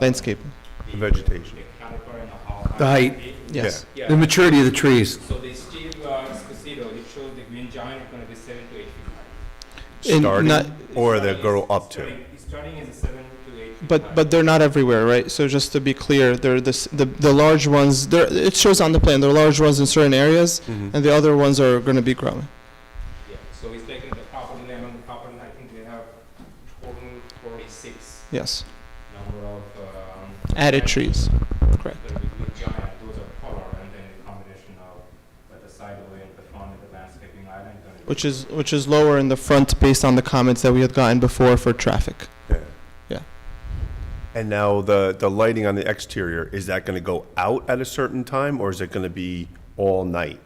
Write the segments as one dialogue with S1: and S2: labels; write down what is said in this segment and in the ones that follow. S1: Landscape,
S2: the vegetation.
S3: caliper and how high
S4: The height.
S3: it is.
S1: yes.
S3: Yeah.
S4: The maturity of the trees.
S3: So the Steve uh, Esposito, it shows the green giant is going to be seven to eight feet high.
S1: And not-
S2: Starting, or they
S3: Starting
S2: grow
S3: is-
S2: up to.
S3: starting- Starting is a seven to eight. feet high.
S1: But, but they're not everywhere, right? So just to be clear, they're the, s- the, the large ones, they're, it shows on the plan, there are large ones in certain areas, and the other ones are gonna be growing.
S3: Yeah, so it's taking the property name and the property, I think they have total forty-six
S1: Yes,
S3: number of, um.
S1: added trees, correct.
S3: But with with giant, those are color, and then the combination of, like, the sideway and the front and the landscaping island. gonna be-
S1: Which is, which is lower in the front based on the comments that we had gotten before for traffic.
S2: Yeah.
S1: Yeah.
S2: And now the, the lighting on the exterior, is that gonna go out at a certain time, or is it gonna be all night?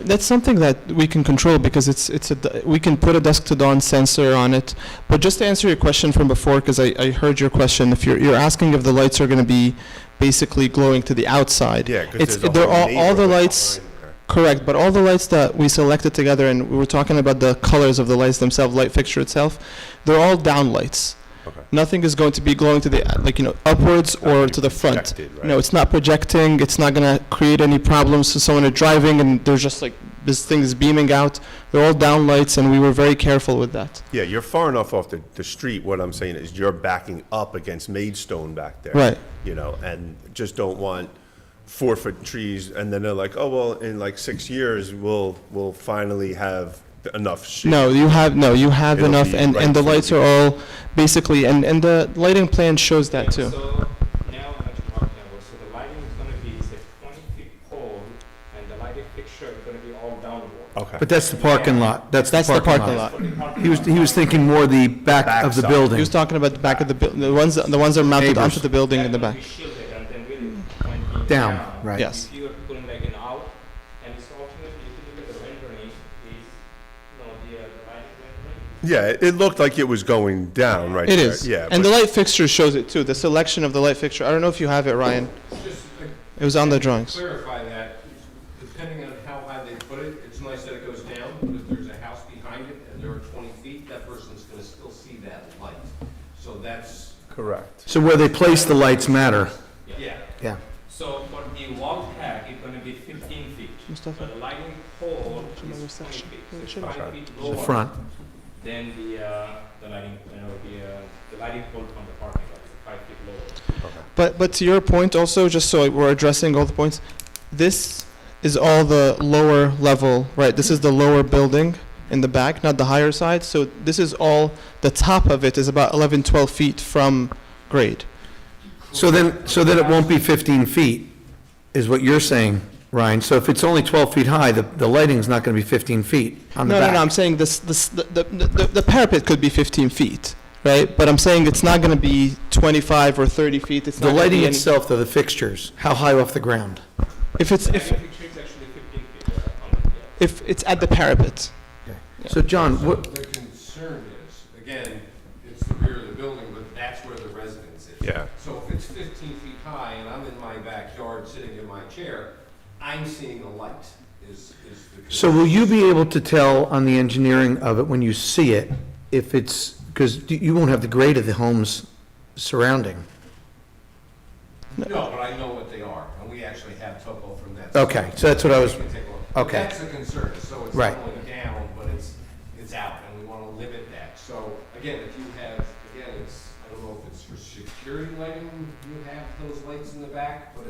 S1: That's something that we can control because it's, it's a, d- we can put a dusk to dawn sensor on it. But just to answer your question from before, because I, I heard your question, if you're, you're asking if the lights are going to be basically glowing to the outside.
S2: Yeah, 'cause
S1: It's-
S2: there's a
S1: they're
S2: whole
S1: all- all the
S2: neighborhood
S1: lights-
S2: behind there.
S1: Correct, but all the lights that we selected together, and we were talking about the colors of the lights themselves, light fixture itself, they're all down lights.
S2: Okay.
S1: Nothing is going to be glowing to the, like, you know, upwards
S2: Not
S1: or
S2: be
S1: to the front.
S2: projected, right?
S1: No, it's not projecting, it's not gonna create any problems to someone who's driving, and there's just like, this thing is beaming out. They're all down lights, and we were very careful with that.
S2: Yeah, you're far enough off the, the street, what I'm saying is you're backing up against Maidstone back there.
S1: Right.
S2: You know, and just don't want four-foot trees, and then they're like, oh, well, in like six years, we'll, we'll finally have enough shade.
S1: No, you have, no, you have
S2: It'll
S1: enough,
S2: be
S1: and,
S2: right
S1: and the
S2: for the
S1: lights are all basically, and, and the lighting plan shows that
S3: Okay,
S1: too.
S3: So now I'm at your park level, so the lighting is gonna be, it's a twenty feet pole, and the lighting fixture is gonna be all downward.
S2: Okay.
S4: But that's the parking lot. That's the
S1: That's the parking
S4: parking lot.
S1: lot.
S4: He was, he was thinking more the back of the
S2: Backside.
S1: He
S4: building.
S1: was talking about the back of the, buil- the ones, the ones that are mounted
S4: Neighbors.
S1: onto the building in the back.
S3: That will be shielded, and then really when it
S4: Down,
S3: down,
S4: right.
S1: Yes.
S3: If you are pulling like an out, and it's ultimately, if you look at the rendering, is, no, the uh, the lighting rendering,
S2: Yeah, it it looked like it was going down right
S1: It
S2: there.
S1: is.
S2: Yeah.
S1: And
S2: but-
S1: the light fixture shows it too. The selection of the light fixture. I don't know if you have it, Ryan.
S5: Just to
S1: It was on the drawings.
S5: clarify that, depending on how high they put it, it's nice that it goes down, but if there's a house behind it and there are twenty feet, that person's gonna still see that light. So that's,
S2: Correct.
S4: So where they place the lights matter.
S3: yeah.
S4: Yeah.
S3: So for the wall pack, it's gonna be fifteen feet.
S1: Mustafa.
S3: For the lighting pole
S1: Should I
S3: is
S1: move
S3: twenty
S1: section?
S3: feet,
S1: Yeah, it
S3: so
S1: should
S3: it's
S2: be.
S3: five feet
S4: The
S3: lower
S4: front.
S3: than the, uh, the lighting, you know, the, uh, the lighting pole from the parking lot, it's five feet lower.
S1: But but to your point also, just so we're addressing all the points, this is all the lower level, right? This is the lower building in the back, not the higher side. So this is all the top of it is about 11, 12 feet from grade.
S4: So then, so then it won't be 15 feet, is what you're saying, Ryan. So if it's only 12 feet high, the, the lighting's not going to be 15 feet on the
S1: No,
S4: back.
S1: no, no, I'm saying this, this, the, the, the the parapet could be 15 feet, right? But I'm saying it's not gonna be 25 or 30 feet, it's not
S4: The
S1: gonna
S4: lighting
S1: be any-
S4: itself, though, the fixtures, how high off the ground?
S1: If it's,
S3: The
S1: if,
S3: lighting fixture is actually fifteen feet, uh, on the, yeah.
S1: if it's at the parapet.
S4: So John, what,
S5: the concern is, again, it's the rear of the building, but that's where the residence is.
S2: Yeah.
S5: So if it's fifteen feet high and I'm in my backyard sitting in my chair, I'm seeing the light is, is the.
S4: So will you be able to tell on the engineering of it when you see it, if it's, because you won't have the grade of the homes surrounding?
S5: No, but I know what they are, and we actually have topo from that.
S4: Okay, so that's what I was,
S5: We can take a look. But
S4: Okay.
S5: That's a concern, so it's
S4: Right.
S5: not only down, but it's, it's out, and we want to limit that. So, again, if you have, again, it's, I don't know if it's for security lighting, you have those lights in the back, but if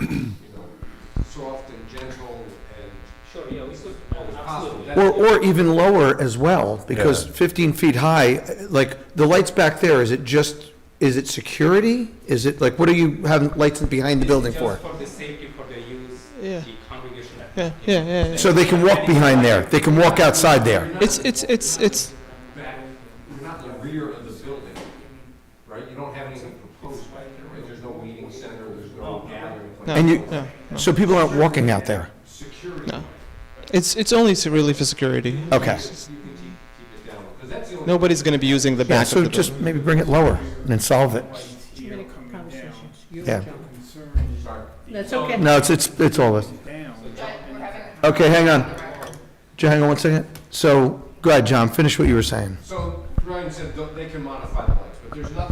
S5: we could have those, you know, soft and gentle and
S3: Sure, yeah, we could,
S5: as possible.
S3: absolutely.
S5: That-
S4: or, or even lower as well, because
S2: Yeah.
S4: 15 feet high, like, the lights back there, is it just, is it security? Is it, like, what are you having lights behind the building for?
S3: Just for the safety, for the use,
S1: Yeah.
S3: the congregation.
S1: Yeah, yeah, yeah, yeah.
S4: So they can walk behind there, they can walk outside there.
S1: It's, it's, it's, it's,
S5: back, you're not in the rear of the building, right? You don't have anything proposed back there, right? There's no meeting center, there's no gathering place.
S1: no,
S4: And you-
S1: no, no.
S4: So people aren't walking out there.
S5: Security
S1: No. It's, it's only s- really for security.
S4: Okay.
S1: Nobody's gonna be using the
S4: Yeah,
S1: back
S4: so
S1: of the building.
S4: just maybe bring it lower and then solve it.
S6: Too many conversations.
S4: Yeah.
S6: That's okay.
S4: No, it's, it's, it's all this. Okay, hang on. Ju- Hang on one second. So, go ahead, John, finish what you were saying.
S5: So Ryan said th- they can modify the lights, but
S3: But there's nothing